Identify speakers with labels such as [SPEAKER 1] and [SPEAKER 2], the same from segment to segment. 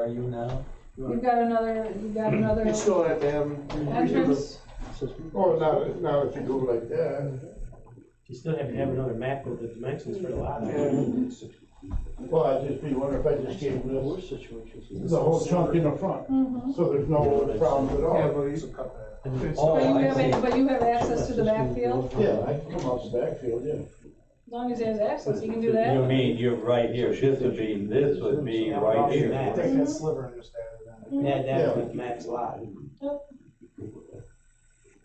[SPEAKER 1] are you now?
[SPEAKER 2] You've got another, you've got another
[SPEAKER 3] Hmm. It's still at them.
[SPEAKER 2] entrance.
[SPEAKER 3] Oh, not, not if you go like that.
[SPEAKER 4] You still have to have another map of the dimensions for the lot.
[SPEAKER 3] And, well, I'd just be wondering if I just gave this,
[SPEAKER 5] situations.
[SPEAKER 3] the whole chunk in the front,
[SPEAKER 2] Mhm.
[SPEAKER 3] so there's no problems at
[SPEAKER 6] Yeah,
[SPEAKER 3] all.
[SPEAKER 6] but he's a cut that.
[SPEAKER 3] It's-
[SPEAKER 1] Oh,
[SPEAKER 2] But you
[SPEAKER 1] I
[SPEAKER 2] have,
[SPEAKER 1] see.
[SPEAKER 2] but you have access to the backfield,
[SPEAKER 3] Yeah, I can come out the backfield, yeah.
[SPEAKER 2] as long as he has access, he can do
[SPEAKER 1] You
[SPEAKER 2] that.
[SPEAKER 1] mean, you're right here, this would be, this would be right
[SPEAKER 6] I
[SPEAKER 1] here.
[SPEAKER 6] think that sliver and just added on.
[SPEAKER 4] Yeah, that would match lot.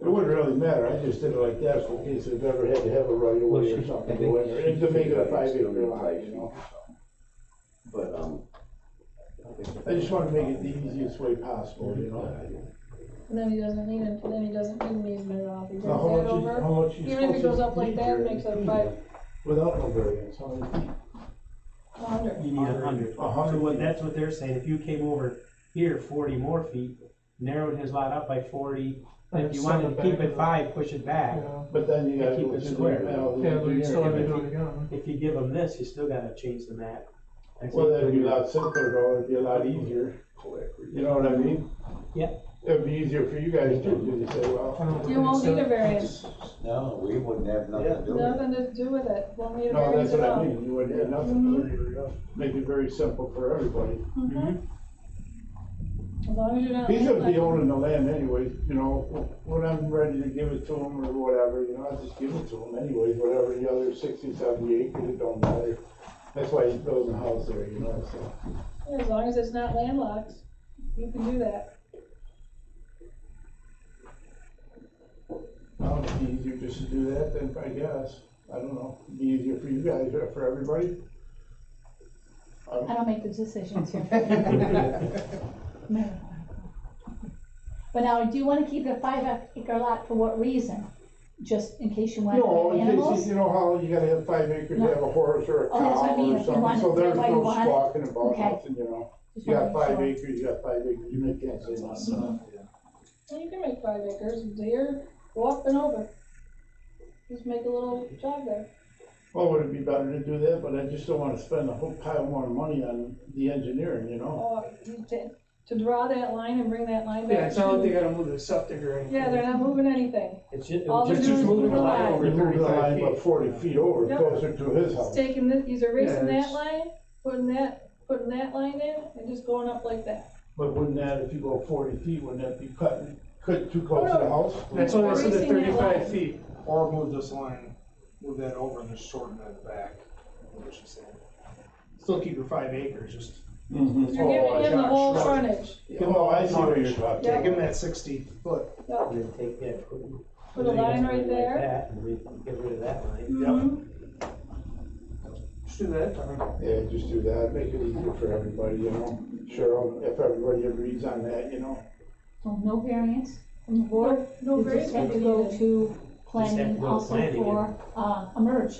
[SPEAKER 3] It wouldn't really matter, I just did it like that, so in case they've ever had to have a right of way or something go in there, and to make it a five acre lot, you know?
[SPEAKER 5] But, um.
[SPEAKER 3] I just wanna make it the easiest way possible, you know?
[SPEAKER 2] And then he doesn't need it, then he doesn't need an easement at all, if he brings that
[SPEAKER 3] Now, how much is,
[SPEAKER 2] over.
[SPEAKER 3] how much you
[SPEAKER 2] Even if it goes up like that, it makes it five,
[SPEAKER 3] Without no variance, how many feet?
[SPEAKER 2] a hundred.
[SPEAKER 4] You need a hundred.
[SPEAKER 3] A hundred.
[SPEAKER 4] So what, that's what they're saying, if you came over here forty more feet, narrowed his lot up by forty, and if you wanted to keep it five, push it back.
[SPEAKER 6] Yeah,
[SPEAKER 3] But then you gotta
[SPEAKER 4] Keep
[SPEAKER 3] go
[SPEAKER 4] it
[SPEAKER 3] through
[SPEAKER 4] square.
[SPEAKER 3] the panel.
[SPEAKER 6] Yeah, but you still have to do it again.
[SPEAKER 4] If you give him this, you still gotta change the map. I
[SPEAKER 3] Well,
[SPEAKER 4] think-
[SPEAKER 3] that'd be a lot simpler, though, it'd be a lot easier, you know what I mean?
[SPEAKER 4] Yeah.
[SPEAKER 3] It'd be easier for you guys too, because you say,
[SPEAKER 6] I
[SPEAKER 3] well,
[SPEAKER 6] don't
[SPEAKER 2] You won't need a variance,
[SPEAKER 1] No, we wouldn't have nothing to do with it.
[SPEAKER 2] nothing to do with it, won't need a
[SPEAKER 3] no,
[SPEAKER 2] variance
[SPEAKER 3] that's
[SPEAKER 2] at
[SPEAKER 3] what I
[SPEAKER 2] all.
[SPEAKER 3] mean, you wouldn't have nothing. Make it very simple for everybody.
[SPEAKER 4] Mm-hmm.
[SPEAKER 2] Mhm. As long as you're not.
[SPEAKER 3] Mm-hmm. He's gonna be
[SPEAKER 2] landlocked.
[SPEAKER 3] owning the land anyway, you know, when I'm ready to give it to him or whatever, you know, I just give it to him anyways, whatever, the other sixty, seventy acres, it don't matter. That's why he's building a house there, you know, so.
[SPEAKER 2] Yeah, As long as it's not landlocked, you can do that.
[SPEAKER 3] Well, it'd be easier just to do that than, I guess, I don't know, it'd be easier for you guys, or for everybody.
[SPEAKER 7] I don't make the decisions here. No. But now, do you wanna keep the five acre lot for what reason? Just in case you want
[SPEAKER 3] No,
[SPEAKER 7] to have
[SPEAKER 3] in case,
[SPEAKER 7] animals?
[SPEAKER 3] you know how you gotta have five acres, you have a horse or a
[SPEAKER 7] Oh, that's what I
[SPEAKER 3] cow
[SPEAKER 7] mean, if
[SPEAKER 3] or
[SPEAKER 7] you
[SPEAKER 3] something,
[SPEAKER 7] want
[SPEAKER 3] so
[SPEAKER 7] it,
[SPEAKER 3] there's
[SPEAKER 7] why you
[SPEAKER 3] no
[SPEAKER 7] want it?
[SPEAKER 3] squawking about
[SPEAKER 7] Okay.
[SPEAKER 3] nothing, you know?
[SPEAKER 7] Just
[SPEAKER 3] You
[SPEAKER 7] wanna
[SPEAKER 3] got
[SPEAKER 7] make
[SPEAKER 3] five
[SPEAKER 7] sure.
[SPEAKER 3] acres, you got five acres, you make that say nothing.
[SPEAKER 2] Well, you can make five acres, deer, go up and over. Just make a little jog there.
[SPEAKER 3] Well, would it be better to do that, but I just don't wanna spend a whole pile more money on the engineering, you know?
[SPEAKER 2] Oh, you ta- To draw that line and bring that line back.
[SPEAKER 6] Yeah, it's not like they gotta move the septic or anything.
[SPEAKER 2] Yeah, they're not moving anything.
[SPEAKER 4] It's just, it
[SPEAKER 2] All
[SPEAKER 4] was
[SPEAKER 2] they're
[SPEAKER 4] just
[SPEAKER 2] doing is
[SPEAKER 4] moving
[SPEAKER 2] moving
[SPEAKER 4] the
[SPEAKER 2] the
[SPEAKER 4] lot
[SPEAKER 2] line.
[SPEAKER 4] over
[SPEAKER 3] You move the
[SPEAKER 4] thirty-five
[SPEAKER 3] line
[SPEAKER 4] feet.
[SPEAKER 3] about forty feet over,
[SPEAKER 2] Yep.
[SPEAKER 3] closer to his
[SPEAKER 2] It's
[SPEAKER 3] house.
[SPEAKER 2] taking this, he's erasing
[SPEAKER 6] Yeah,
[SPEAKER 2] that
[SPEAKER 6] it's-
[SPEAKER 2] line, putting that, putting that line in, and just going up like that.
[SPEAKER 3] But wouldn't that, if you go forty feet, wouldn't that be cutting, cut too close
[SPEAKER 2] Oh,
[SPEAKER 3] to
[SPEAKER 2] no.
[SPEAKER 3] the house?
[SPEAKER 6] That's why I said the
[SPEAKER 2] Erasing that line.
[SPEAKER 6] thirty-five feet, or move this line, move that over and just shorten that back, what she's saying. Still keep your five acres, just.
[SPEAKER 3] Mhm.
[SPEAKER 2] You're
[SPEAKER 6] Oh,
[SPEAKER 2] giving him the
[SPEAKER 6] gosh,
[SPEAKER 2] whole
[SPEAKER 6] right.
[SPEAKER 2] frontage.
[SPEAKER 3] Well, I see where you're about.
[SPEAKER 2] Yeah.
[SPEAKER 6] Take him that sixty foot,
[SPEAKER 2] Yep.
[SPEAKER 4] And then take that, put.
[SPEAKER 2] Put a line right
[SPEAKER 4] like
[SPEAKER 2] there.
[SPEAKER 4] that, And we get rid of that line.
[SPEAKER 2] Mhm.
[SPEAKER 6] just do that, I mean,
[SPEAKER 3] Yeah, just do that, make it easier for everybody, you know, Cheryl, if everybody agrees on that, you know.
[SPEAKER 7] So no variance from the board?
[SPEAKER 2] No, no
[SPEAKER 7] You just
[SPEAKER 2] variance
[SPEAKER 7] have
[SPEAKER 2] would
[SPEAKER 7] to
[SPEAKER 2] be
[SPEAKER 7] go
[SPEAKER 2] needed.
[SPEAKER 7] to
[SPEAKER 4] have to
[SPEAKER 7] planning
[SPEAKER 4] go to
[SPEAKER 7] also
[SPEAKER 4] planning
[SPEAKER 7] for, uh, a merge.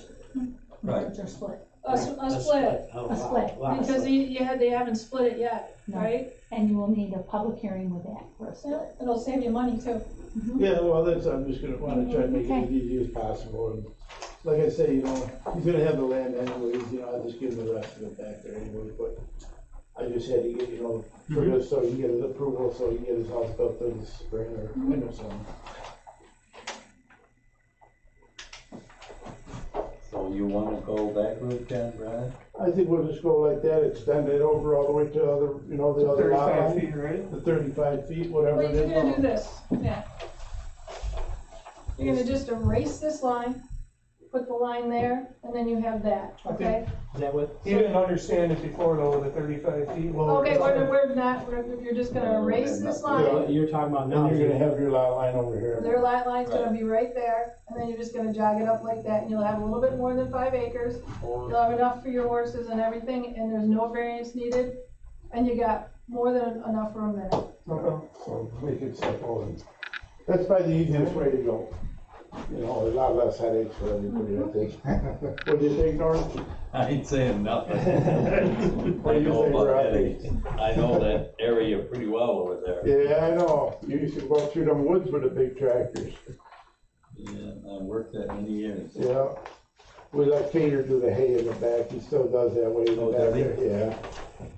[SPEAKER 1] Right.
[SPEAKER 7] Merge or split,
[SPEAKER 2] A, s- a split,
[SPEAKER 4] Oh,
[SPEAKER 7] A
[SPEAKER 4] lot-
[SPEAKER 7] split.
[SPEAKER 4] lot of
[SPEAKER 2] because
[SPEAKER 4] split.
[SPEAKER 2] he, you had, they haven't split it yet,
[SPEAKER 7] No.
[SPEAKER 2] right?
[SPEAKER 7] and you will need a public hearing with that for a
[SPEAKER 2] Yeah,
[SPEAKER 7] split.
[SPEAKER 2] It'll save you money too.
[SPEAKER 3] Yeah, well, that's, I'm just gonna wanna try to make it as
[SPEAKER 7] Okay.
[SPEAKER 3] easy as possible, and like I say, you know, he's gonna have the land anyways, you know, I'll just give him the rest of it back there anyway, but I just had to get, you know, for this, so he can get his approval, so he can get his house built this spring or winter something.
[SPEAKER 2] Mm-hmm.
[SPEAKER 1] So you wanna go back route then, Brad?
[SPEAKER 3] I think we'll just go like that, extend it over all the way to other, you know, the other lot
[SPEAKER 6] thirty-five
[SPEAKER 3] line,
[SPEAKER 6] feet, right?
[SPEAKER 3] the thirty-five feet, whatever
[SPEAKER 2] Well,
[SPEAKER 3] it
[SPEAKER 2] you're
[SPEAKER 3] is.
[SPEAKER 2] gonna do this, yeah. You're gonna just erase this line, put the line there, and then you have that, okay?
[SPEAKER 4] Is that what?
[SPEAKER 6] He didn't understand it before though, the thirty-five feet lower.
[SPEAKER 2] Okay, we're, we're not, we're- you're just gonna erase this line,
[SPEAKER 4] What You're talking about now.
[SPEAKER 3] Then
[SPEAKER 4] is
[SPEAKER 3] you're gonna have your lot line over here.
[SPEAKER 2] their lot line's gonna be right there, and then you're just gonna jog it up like that, and you'll have a little bit more than five acres. You'll have enough for your horses and everything, and there's no variance needed, and you got more than enough room there.
[SPEAKER 6] Okay.
[SPEAKER 3] So make it simple and that's probably the easiest way to go. You know, a lot less headaches for everybody, I think. What do you think, Norm?
[SPEAKER 1] I ain't saying nothing.
[SPEAKER 3] What
[SPEAKER 1] I
[SPEAKER 3] do you
[SPEAKER 1] know
[SPEAKER 3] think,
[SPEAKER 1] about
[SPEAKER 3] Rob?
[SPEAKER 1] headaches. I know that area pretty well over there.
[SPEAKER 3] Yeah, I know. You used to go through them woods with the big tractors.
[SPEAKER 1] Yeah, I worked that many years.
[SPEAKER 3] Yeah. We let Peter do the hay in the back. He still does that way in the
[SPEAKER 1] Oh, does
[SPEAKER 3] back. Yeah.